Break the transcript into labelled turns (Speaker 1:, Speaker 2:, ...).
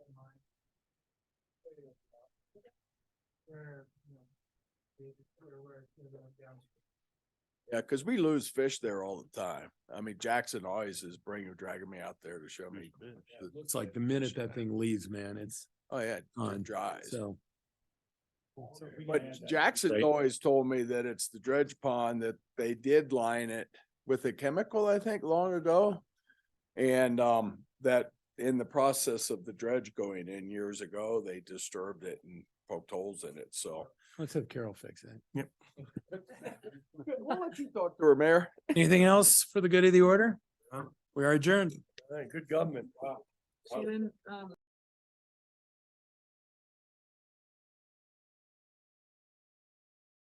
Speaker 1: Where, you know, the, where, where it's gonna go down to.
Speaker 2: Yeah, because we lose fish there all the time. I mean, Jackson always is bringing, dragging me out there to show me. the-
Speaker 3: It's like the minute that thing leaves, man, it's
Speaker 2: Oh, yeah, it
Speaker 3: on,
Speaker 2: dries.
Speaker 3: so.
Speaker 1: So if we can add
Speaker 2: But
Speaker 1: that.
Speaker 2: Jackson's
Speaker 4: Right.
Speaker 2: always told me that it's the dredge pond that they did line it with a chemical, I think, long ago. And um, that in the process of the dredge going in years ago, they disturbed it and poked holes in it, so.
Speaker 3: Let's have Carol fix it.
Speaker 2: We'll let you talk to her, Mayor.
Speaker 3: Anything else for the good of the order?
Speaker 4: No.
Speaker 3: We are adjourned.
Speaker 4: Good government.
Speaker 5: Shannon, um,